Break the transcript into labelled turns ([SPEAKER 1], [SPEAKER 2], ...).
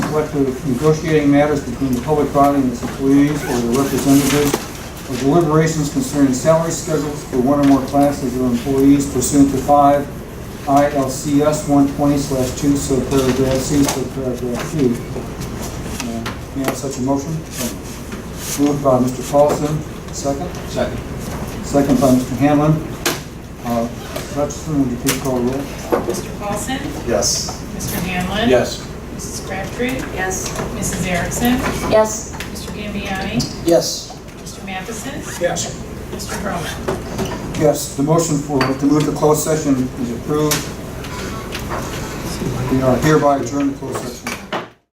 [SPEAKER 1] what to negotiating matters between the public body and its employees or their representatives, or deliberations concerning salary schedules for one or more classes of employees pursuant to five ILCS one twenty two, so paragraph C, so paragraph Q. Uh, May I have such a motion? Moved by Mr. Paulson, second?
[SPEAKER 2] Second.
[SPEAKER 1] Second by Mr. Hanlon. Uh, Hutchinson, would you please call the roll?
[SPEAKER 3] Mr. Paulson?
[SPEAKER 2] Yes.
[SPEAKER 3] Mr. Hanlon?
[SPEAKER 2] Yes.
[SPEAKER 3] Mrs. Crabtree?
[SPEAKER 4] Yes.
[SPEAKER 3] Mrs. Erickson?
[SPEAKER 4] Yes.
[SPEAKER 3] Mr. Gambiani?
[SPEAKER 2] Yes.
[SPEAKER 3] Mr. Matheson?
[SPEAKER 2] Yes.
[SPEAKER 3] Mr. Broman?
[SPEAKER 1] Yes, the motion for, to move to closed session is approved. We are hereby adjourned to closed session.